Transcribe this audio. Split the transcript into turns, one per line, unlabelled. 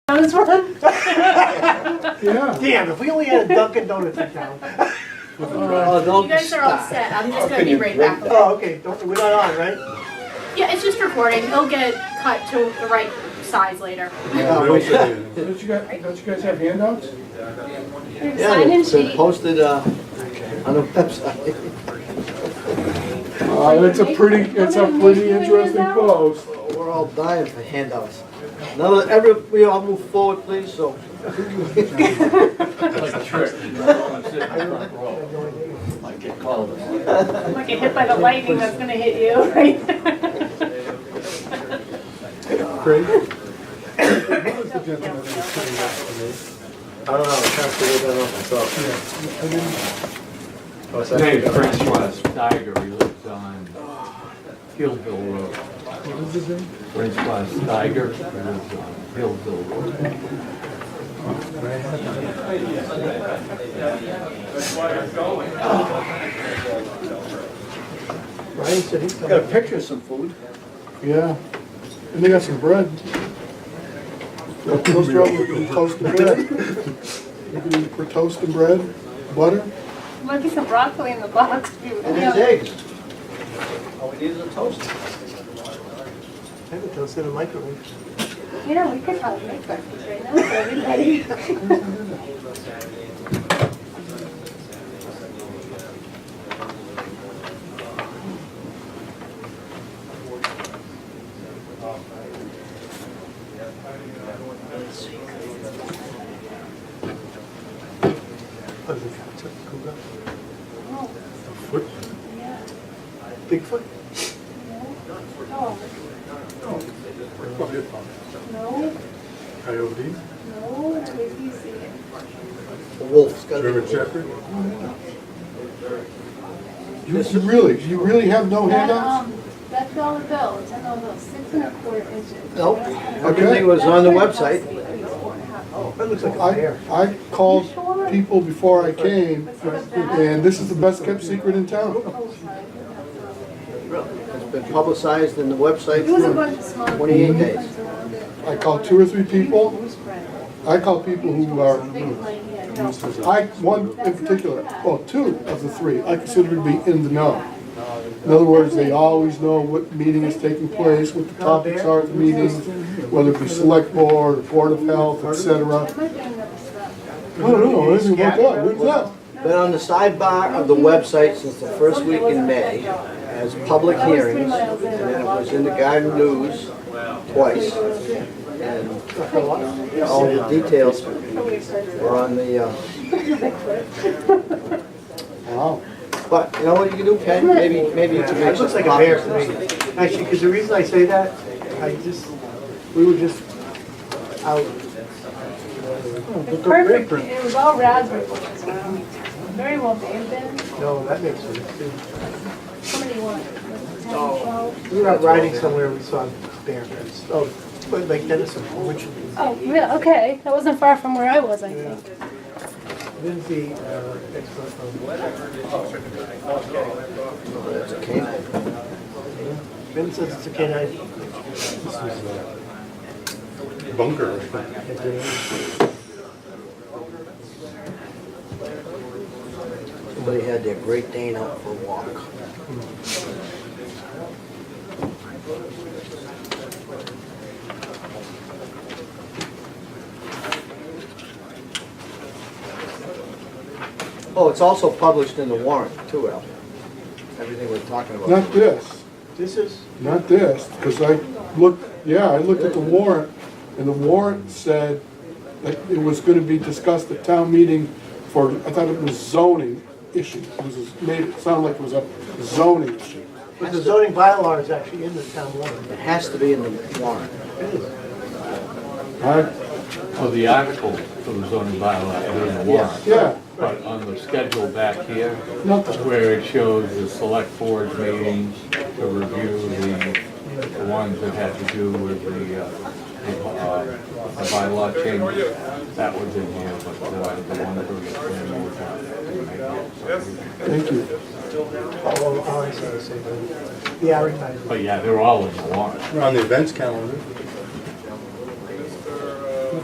Donuts run?
Yeah.
Damn, if we only had a Dunkin' Donuts in town.
Oh,
You
don't
guys are all
stop.
set. I'm just
Oh,
gonna
can
be
you
right
break
back.
that?
Oh, okay, don't, we're not on, right?
Yeah, it's just recording. It'll get cut to the right size later.
Yeah, we should do.
Don't you guys, don't you guys have handouts?
Yeah, it's been posted, uh, on the website.
Uh, that's a pretty, it's a pretty interesting post.
We're all dying for handouts. None of, every, we all move forward, please, so.
Like get hit by the lightning that's gonna hit you, right?
Craig? Who's the gentleman that's sitting next to me?
I don't know, I'm trying to figure that out myself.
Yeah, I didn't-
Oh, so I
Hey,
forgot.
Frank West, Tiger, he lives on Hillville Road.
What is his name?
Frank West, Tiger, he lives on Hillville Road.
Ryan said he's got a picture of some food.
Yeah. And they got some bread. Toast bread, toast and bread. You can eat for toast and bread, butter.
Might be some broccoli in the box. if you-
And it's eggs.
All Oh, we need is a toast. I have a toast in the microwave.
You know, we could probably make breakfast right now for everybody.
Oh, the cat's up, cool guy. Foot? Bigfoot?
No, no,
Coyote,
no, wait till you see it.
A wolf, it's gotta be a
German
wolf.
Shepherd. You you really, you really have
Oh,
no
That,
handouts?
um, That dollar bill, it's a dollar bill, six and a quarter inches.
Nope.
Okay.
Everything was on the
That's what it
website.
must be, at least four and a half.
That looks like a
I,
bear.
I called people before I came, and this is the best kept secret in town.
Oh, sorry.
It's been publicized in the website
It was a bunch of
for
small.
28 days.
I called two or three people,
Who's Brad?
I called people who are,
Big lady, yeah, no.
I, one in particular, well, two of the three, I consider to be in the know. In other words, they always know what meeting is taking place, what the topics are at the meeting, whether it be select board, board of health, et cetera.
I might be another step.
I don't know, anything like that, what's that?
Been on the sidebar of the website since the first week in May as public hearings, and then it was in the Garden News twice. And all the details were on the, uh,
Wow.
but you know what you can do, Ken? Maybe, maybe you can
It
make
looks
some
like a bear
copies.
to me. Actually, because the reason I say that, I just, we were just out.
It's perfect, it was all raspberry ones, um, very well made then,
No, that makes sense too.
somebody wanted, like, 10, 12.
We were out riding somewhere, we saw bear prints. Oh, but like Denison, which
Oh, yeah, okay, that wasn't far from where I was, I think.
Lindsay, uh, expert from,
That's a canine.
Ben says it's a canine.
Bunker.
Somebody had their Great Dane out for a walk. Oh, it's also published in the warrant too, Al. Everything we're talking about.
Not this.
This is,
Not this, because I looked, yeah, I looked at the warrant, and the warrant said that it was gonna be discussed at town meeting for, I thought it was zoning issue. It was, it made it sound like it was a zoning issue.
but the zoning bylaw is actually in the town warrant.
It has to be in the warrant.
I,
So the article for the zoning bylaw is in the warrant,
yeah,
but on the schedule back here,
nothing.
where it shows the select board meetings to review the, the ones that had to do with the, uh, the, uh, the bylaw changes, that was in here, but uh, the one for the planning board, uh, didn't make it.
Thank you.
Oh, well, all oh, I say is, say, that. yeah, I retired.
But yeah, they're all in the warrant.
We're on the events calendar.